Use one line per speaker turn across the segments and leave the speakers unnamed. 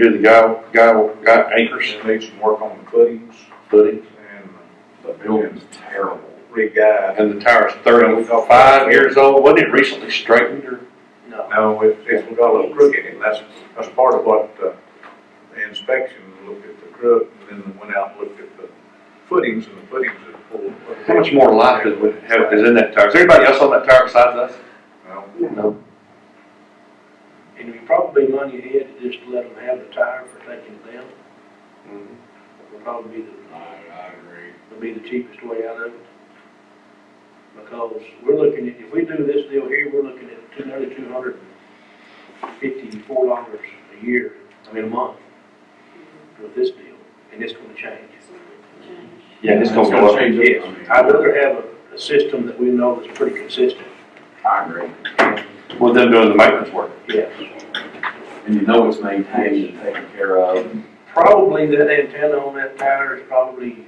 You're the guy, guy, guy anchors. Made some work on the footings. Footings.
and
The building's terrible.
re-guy.
And the tower's thirty-five years old, wasn't it recently straightened or?
No.
No, it, it's got a little crook in it, that's, that's part of what, uh, the inspection looked at the crook, and then went out and looked at the footings, and the footings had pulled.
How much more life is, have- is in that tower? Is anybody else on that tower besides us?
Well,
No.
And we probably money ahead to just let them have the tire for taking it down.
Mm-hmm.
Would probably be the,
I, I agree.
would be the cheapest way out of it. Because we're looking at, if we do this deal here, we're looking at two, nearly two hundred and fifty-four dollars a year, I mean, a month with this deal, and it's gonna change.
Yeah, it's gonna go up.
change it.
Yes, I'd rather have a, a system that we know is pretty consistent,
I agree.
With them doing the maintenance work.
yes.
And you know it's maintained and taken care of.
Probably that antenna on that tower is probably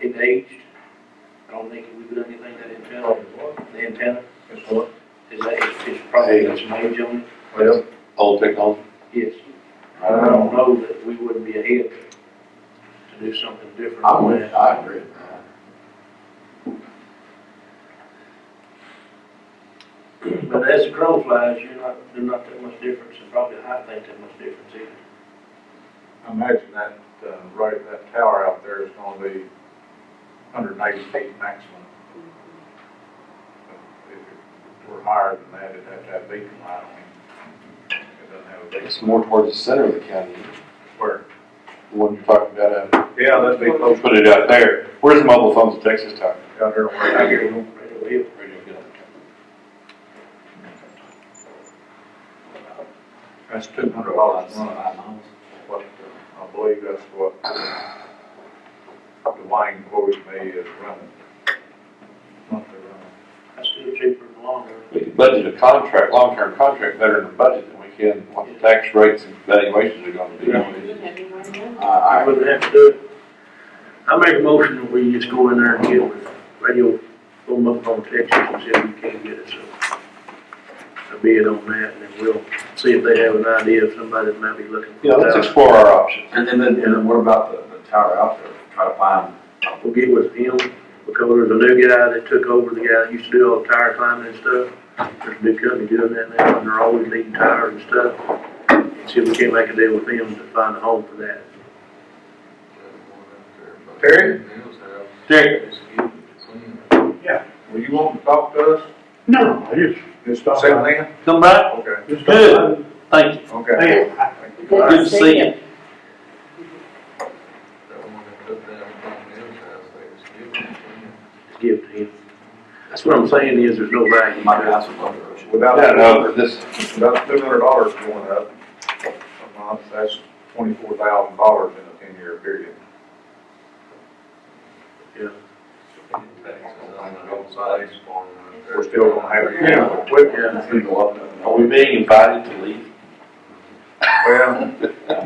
it aged. I don't think we've done anything to that antenna. The antenna
it's what,
is aged, it's probably got some age on it.
well,
Old technology.
Yes. I don't know that we wouldn't be ahead to do something different.
I
on
would,
that.
I agree with that.
But as the crow flies, you're not, there's not that much difference, and probably I think that much difference either.
I imagine that, uh, right, that tower out there is gonna be hundred and eighty feet maximum. If it were higher than that, it'd have to have beacon light on it. It doesn't have a beacon
It's more towards the center of the county,
where,
the one you're talking about. uh,
yeah, that'd be close
Put it out there. Where's the mobile phones in Texas tower?
down there where I get them.
Right away.
That's two hundred dollars a month.
Well,
what, uh, I believe that's what Dwayne quoted me as running. Monthly running.
That's still cheaper in the long run.
We can budget a contract, long-term contract better than a budget than we can what the tax rates and valuations are gonna be.
I,
I
I,
wouldn't have to do it. I make a motion that we just go in there and get with radio, boom up on Texas and see if we can get it, so. I bid on that and then we'll see if they have an idea of somebody that might be looking. for
You know, let's
that.
explore our options.
and then, and then what about the, the tower out there? Try to find,
We'll get with him because there's a new guy that took over, the guy that used to do all the tire climbing and stuff. There's a big company doing that now and they're always needing tires and stuff. See if we can't make a deal with them to find a home for that.
Terry? Terry?
Well, you want to talk to us?
No, I just,
Just talk to them?
come back,
Okay,
just good, thank you.
okay.
Hey,
Thank you. All
Good
right.
to see you.
Give to him. That's what I'm saying is there's no value.
you might have some other.
Without,
No, no,
without
this,
two hundred dollars going up a month, that's twenty-four thousand dollars in a ten-year period. We're still gonna have to get the equipment.
It's gonna go up and
are
up.
we being invited to leave?
Well,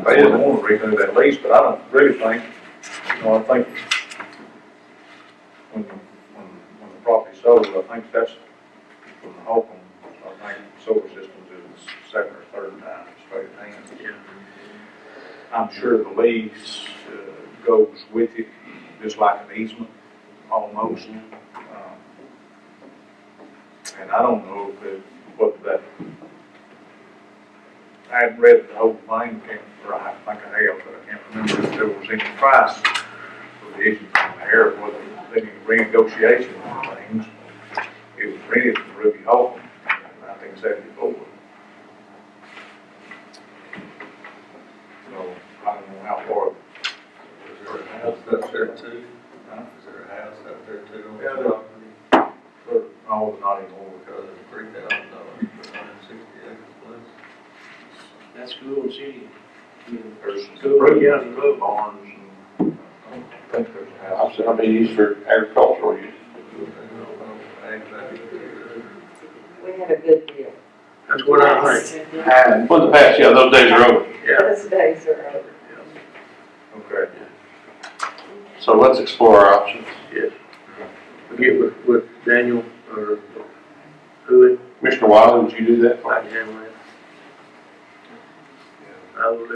they didn't want to renew that lease, but I don't really think, you know, I think when, when, when the property sold, I think that's from Holcomb, I think Solar Systems is the second or third time it's traded hands.
Yeah.
I'm sure the lease uh, goes with it, just like an easement, almost. Um, And I don't know if, it- what that, I haven't read the whole thing, can't- or I think I have, but I can't remember if there was any price for the issue from the air, whether they need renegotiation on things. It was rented from Ruby Hall in nineteen seventy-four. So I don't know how far. Huh? Yeah, there are. But, no, not anymore.
That's cool, and city.
There's some
School,
road,
yeah, the road.
barns and, I think there's a house.
I said, I mean, used for agricultural use.
We had a good deal.
That's what I think,
And,
Well, the past, yeah, those days are over.
yeah.
Those days are over.
Okay.
So let's explore our options.
We'll Get with, with Daniel or who it,
Commissioner Wiley, would you do that?
I can handle that. I will